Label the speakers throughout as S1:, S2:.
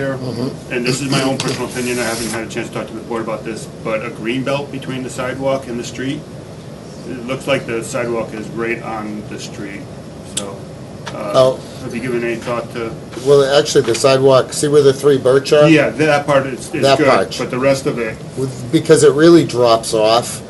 S1: there, and this is my own personal opinion, I haven't had a chance to talk to the board about this, but a green belt between the sidewalk and the street, it looks like the sidewalk is right on the street, so, uh,
S2: Oh.
S1: have you given any thought to?
S2: Well, actually, the sidewalk, see where the three birch are?
S1: Yeah, that part is, is
S2: That
S1: good,
S2: part.
S1: but the rest of it,
S2: With- Because it really drops off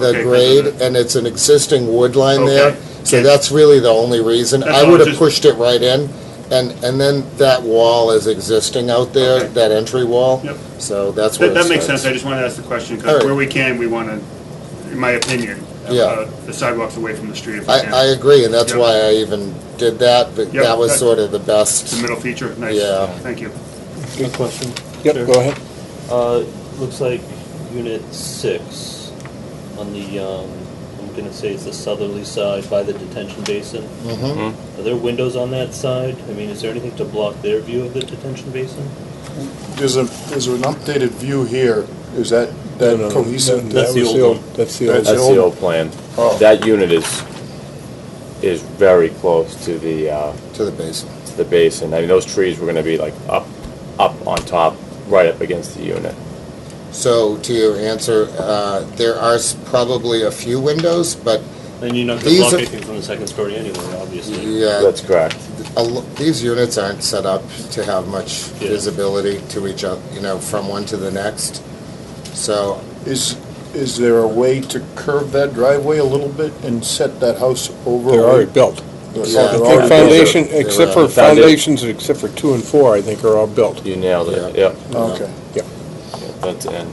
S2: the
S1: Okay, 'cause of
S2: grade,
S1: the-
S2: and it's an existing wood line there.
S1: Okay.
S2: So
S1: Yeah.
S2: that's really the only reason.
S1: That's
S2: I
S1: all,
S2: would have
S1: just-
S2: pushed it right in, and, and then that wall is existing out there,
S1: Okay.
S2: that entry wall.
S1: Yep.
S2: So that's where
S1: that,
S2: it
S1: that makes
S2: starts.
S1: sense, I just wanted to ask the question,
S2: All
S1: because
S2: right.
S1: where we can, we wanna, in my opinion,
S2: Yeah.
S1: uh, the sidewalks away from the street if we
S2: I, I
S1: can.
S2: agree, and that's
S1: Yep.
S2: why I even did that, but
S1: Yep,
S2: that was
S1: that-
S2: sort of the best.
S1: The middle feature, nice,
S2: Yeah.
S1: thank you.
S3: Good question.
S4: Yep, go ahead.
S3: Uh, looks like unit six on the, um, I'm gonna say it's the southerly side by the detention basin.
S2: Mhm.
S3: Are there windows on that side? I mean, is there anything to block their view of the detention basin?
S5: There's a, there's an updated view here. Is that, that
S4: No, no,
S5: cohesive?
S4: that
S3: That's the
S4: was
S3: old one.
S4: That's the old.
S5: That's-
S6: That's the old plan.
S5: Oh.
S6: That unit is, is very close to the, uh,
S2: To the basin.
S6: to the basin. I mean, those trees were gonna be like up, up on top, right up against the unit.
S2: So to your answer, uh, there are s- probably a few windows, but
S3: And you're not gonna
S2: These
S3: block
S2: are-
S3: anything from the second story anyway, obviously.
S2: yeah,
S6: That's correct.
S2: a lo- these units aren't set up to have much
S3: Yeah.
S2: visibility to each other, you know, from one to the next. So
S5: Is, is there a way to curve that driveway a little bit and set that house over?
S4: They're already built.
S2: Yeah,
S4: I
S2: they're
S4: think
S2: already
S4: foundation,
S2: built.
S4: except
S2: They're
S4: for
S2: already-
S4: foundations, except for two and four, I think are all built.
S6: You nailed it, yep.
S5: Okay.
S6: Yeah, That's, and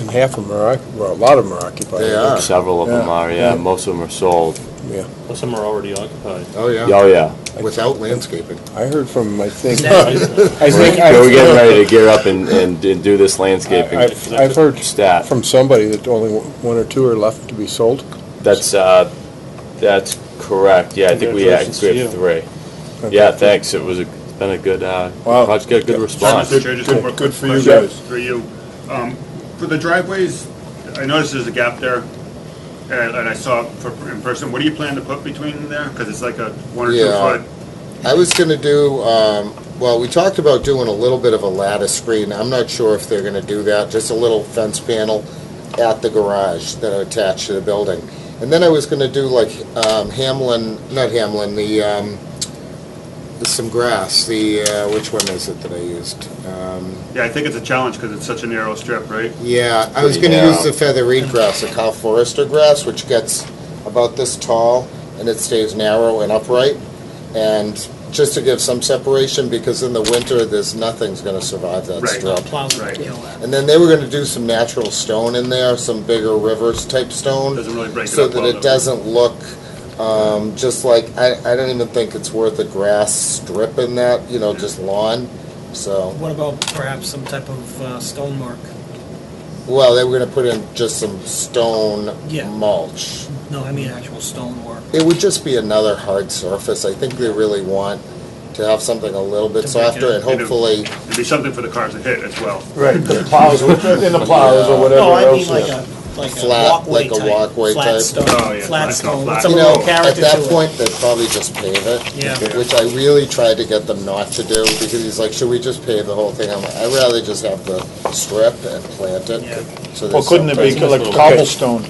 S4: And half of them are, occu- well, a lot of them are occupied.
S2: They
S4: I
S2: are.
S4: think.
S6: several of them
S5: Yeah.
S6: are, yeah. Most of them are sold.
S3: Well, some are already occupied.
S2: oh yeah,
S6: Oh, yeah.
S2: without landscaping.
S4: I heard from, I think, I
S3: Right?
S4: think,
S6: We're we're getting
S4: I've,
S6: ready to gear up and, and do do this landscaping
S4: I've- I've heard
S6: stat.
S4: from somebody that only one or two are left to be sold.
S6: That's, uh, that's correct. Yeah, I think we
S3: Congratulations to
S6: actually have three. Yeah, thanks. It was, a- it's been a good, uh,
S5: Wow.
S6: project, got a good response.
S1: Mr. Chair, just one more
S5: Good for you
S1: question
S5: guys.
S1: For you. Um, For the driveways, I noticed there's a gap there, and and I saw it for- in person. What do you plan to put between there? Because it's like a one or two
S2: Yeah.
S1: foot.
S2: I was gonna do, um, well, we talked about doing a little bit of a lattice screen. I'm not sure if they're gonna do that, just a little fence panel at the garage that are attached to the building. And then I was gonna do like, um, Hamlin, not Hamlin, the, um, some grass, the, uh, which one is it that I used? Um,
S1: Yeah, I think it's a challenge because it's such a narrow strip, right?
S2: Yeah, I was
S6: Pretty
S2: going to use
S6: narrow.
S2: the feather reed grass, the cow forester grass, which gets about this tall and it stays narrow and upright. And just to give some separation, because in the winter, there's nothing's going to survive that
S1: Right.
S2: strip.
S7: Plows would
S1: Right.
S7: kill that.
S2: And then they were going to do some natural stone in there, some bigger rivers type stone,
S1: Doesn't really break it
S2: so
S1: up
S2: that
S1: well.
S2: it doesn't look um, just like I, I don't even think it's worth a grass strip in that, you know, just lawn. So.
S7: What about perhaps some type of uh, stone mark?
S2: Well, they were gonna put in just some stone
S7: Yeah.
S2: mulch.
S7: No, I mean actual stone work.
S2: It would just be another hard surface. I think they really want to have something a little bit
S7: To break it
S2: softer and
S1: up. You know.
S2: hopefully,
S1: It'd be something for the cars to hit as well.
S5: Right, the plows, in the plows or whatever
S7: No, I
S5: else.
S7: mean like a, like a
S2: Flat,
S7: walkway
S2: like a
S7: type.
S2: walkway type.
S7: Flat
S1: Oh, yeah,
S7: stone,
S1: flat,
S7: flat
S1: not
S7: stone,
S1: flat.
S7: with some
S2: you
S1: a
S2: know,
S7: little
S2: at
S7: character
S2: that
S7: to it.
S2: point, they'd probably just pave it.
S7: Yeah. Yeah.
S2: Which I really tried to get them not to do because he's like, should we just pave the whole thing? I'm like, I'd rather just have the strip and plant it.
S7: Yeah.
S2: So
S5: Well,
S2: there's
S5: couldn't it
S2: something.
S5: be like cobblestone?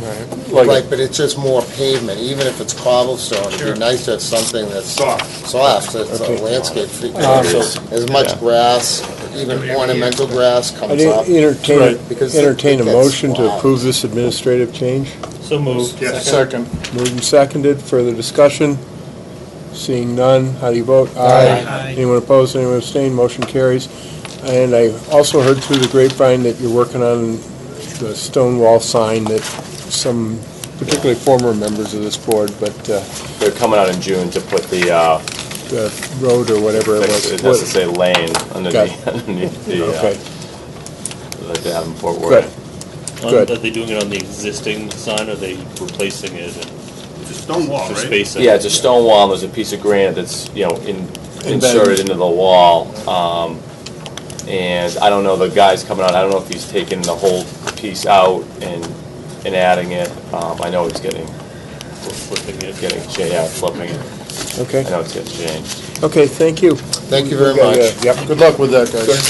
S2: Right, but it's just more pavement, even if it's cobblestone, it'd
S1: Sure.
S2: be nice to have something that's
S1: Soft.
S2: soft, that's a landscape feature.
S4: Uh,
S2: As much
S6: Yeah.
S2: grass, even ornamental grass
S4: I
S2: comes up.
S4: didn't entertain,
S2: Right. Because it-
S4: entertain a
S2: it gets
S4: motion to
S2: wild.
S4: approve this administrative change.
S3: So moved.
S1: Yes.
S5: Second.
S4: Moved and seconded, further discussion? Seeing none, how do you vote?
S7: Aye.
S4: Anyone opposed, anyone abstained, motion carries. And I also heard through the grapevine that you're working on the stone wall sign that some, particularly former members of this board, but uh,
S6: They're coming out in June to put the, uh,
S4: the road or whatever it was.
S6: it has to say lane underneath,
S4: Got
S6: underneath the,
S4: Okay,
S6: uh, like they have in Fort
S4: good.
S6: Worth.
S3: Um,
S4: Good.
S3: Are they doing it on the existing sign, or are they replacing it and
S1: It's a stone wall,
S3: just
S1: right?
S3: spacing?
S6: Yeah, it's a stone wall, and there's a piece of granite that's, you know, in-
S5: Embedded.
S6: inserted into the wall. Um, And I don't know, the guy's coming out, I don't know if he's taking the whole piece out and, and adding it. Um, I know he's getting,
S3: Flipping it.
S6: getting, cha- yeah, flipping it. I
S4: Okay,
S6: know it's getting changed.
S4: okay, thank you.
S2: Thank you very much.
S4: Yep.
S5: Good luck with that, guys.